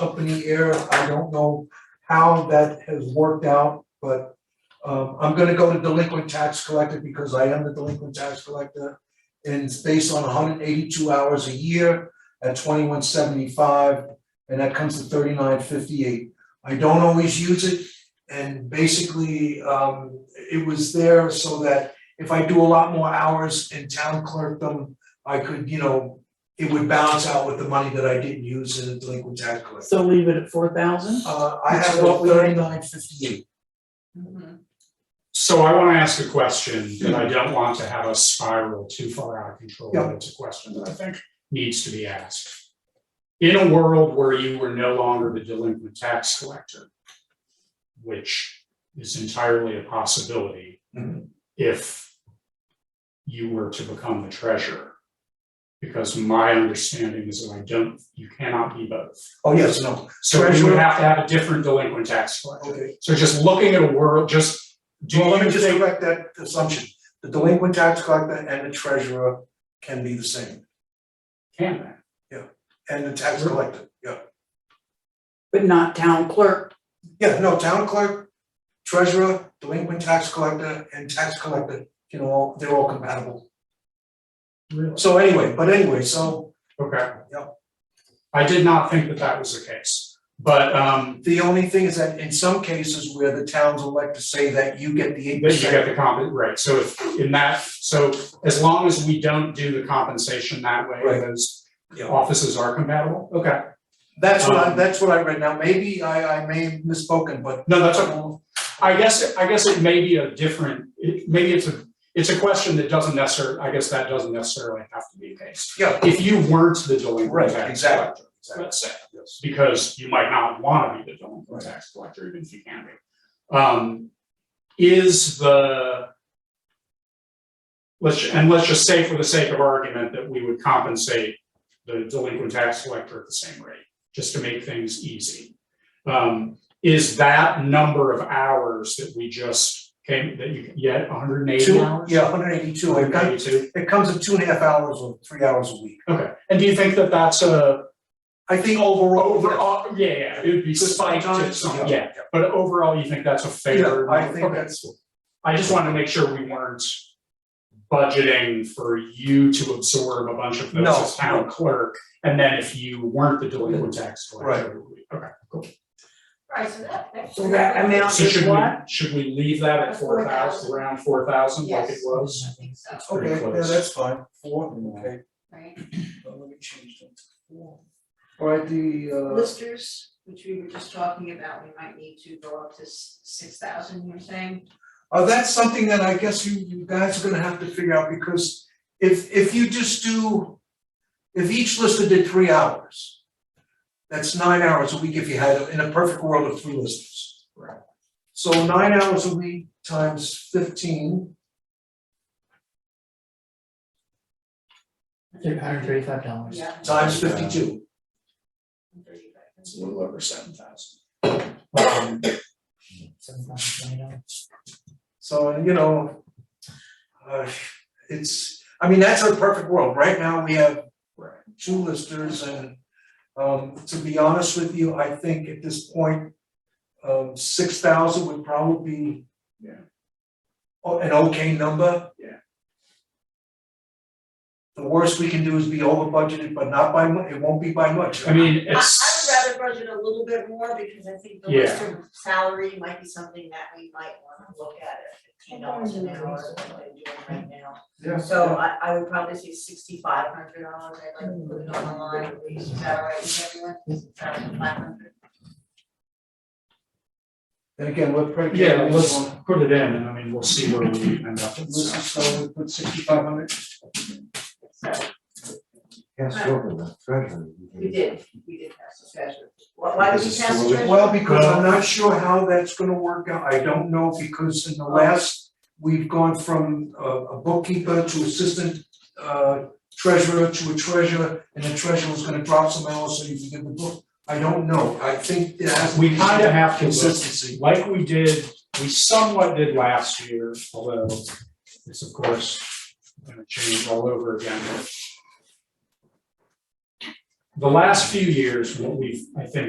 up in the air. I don't know how that has worked out, but um, I'm gonna go to delinquent tax collector because I am the delinquent tax collector. And it's based on hundred eighty-two hours a year at twenty-one seventy-five, and that comes to thirty-nine fifty-eight. I don't always use it, and basically, um, it was there so that if I do a lot more hours in town clerkdom, I could, you know, it would balance out with the money that I didn't use in the delinquent tax collector. So leave it at four thousand? Uh, I Which have is what we- thirty-nine fifty-eight. So I wanna ask a question, but I don't want to have us spiral too far out of control, Hmm. Yeah. but it's a question that I think needs to be asked. In a world where you were no longer the delinquent tax collector, which is entirely a possibility Mhm. if you were to become the treasurer. Because my understanding is that I don't, you cannot be both. Oh, yes, no, So you would Treasurer. have to have a different delinquent tax collector. okay. So just looking at a world, just do Well, let me you just think, correct that assumption. The delinquent tax collector and the treasurer can be the same, can that? and the tax collector, yeah. But not town clerk, Yeah, no, town clerk, treasurer, delinquent tax collector, and tax collector, you know, they're all compatible. So anyway, but anyway, so Okay. Yep. I did not think that that was the case, but um, the only thing is that in some cases where the towns elect to say that you get the eight then you get percent. the comp, right, so if in that, so as long as we don't do the compensation that way, Right. those Yeah. offices are compatible, okay, That's what I, Um, that's what I read now, maybe I I may have misspoken, but no, that's okay. I guess, I guess it may be a different, it maybe it's a, it's a question that doesn't necessarily, I guess that doesn't necessarily have to be the case. yeah, If you weren't the delinquent Right, tax exactly, collector, exactly. let's say, yes, because you might not want to be the delinquent Right. tax collector, even if you can be. Um, is the. Let's, and let's just say for the sake of argument that we would compensate the delinquent tax collector at the same rate, just to make things easy. Um, is that number of hours that we just came, that you, yet hundred and eighty two, hours? yeah, hundred eighty-two, it comes, 182? it comes at two and a half hours or three hours a week. okay, and do you think that that's a, I think overall. overall, yeah, yeah, it would be Just spiked to sometimes, some, yeah. yeah, But overall, you think that's a Yeah, fair? I think okay. that's, I just wanted to make sure we weren't budgeting for you to absorb a bunch of those No, as town clerk. And then if you weren't the delinquent tax collector, it would be- okay, cool. Right, so that, that's. So that amount- Now, So if should we, what? should we leave that at At four thousand, 4,000? around four thousand like it Yes. was? I think so, It's pretty okay, yeah, close. that's fine, four, okay. right? Uh, Let me change that to four. All right, the, uh, Listers, which we were just talking about, we might need to go up to six thousand, you're saying? uh, that's something that I guess you, you guys are gonna have to figure out, because if, if you just do, if each lister did three hours, that's nine hours a week if you had, in a perfect world of three listers. Right. So nine hours a week times fifteen, Three hundred thirty-five dollars. Yeah. times fifty-two, It's a little over seven thousand. Seven thousand twenty dollars. so, and you know, uh, it's, I mean, that's our perfect world, right now, we have Right. two listers and um to be honest with you, I think at this point um six thousand would probably be Yeah. o- an okay number. Yeah. The worst we can do is be over budgeted, but not by mu- it won't be by much. I mean, I, it's, I would rather budget a little bit more because I think the Yeah. lister salary might be something that we might wanna look at at fifteen dollars an hour, is what they're doing right now. Yeah. So I, I would probably say sixty-five hundred dollars, I'd like to put it on the line, at least, is that all right with everyone? Five hundred. And again, what Craig. yeah, let's put it in and I mean, we'll see where we end up. Listen, so we put sixty five hundred. So, Passed over the treasurer. we did, we did pass the treasure. Why, why did we pass the treasure? Well, because I'm not sure how that's gonna work out, I don't know, because in the last, we've gone from a a bookkeeper to assistant uh treasurer to a treasurer, and the treasurer's gonna drop some hours, so you can get the book, I don't know, I think there has to We be kind of have to look consistency. like we did, we somewhat did last year, although it's of course gonna change all over again. The last few years, what we've, I think,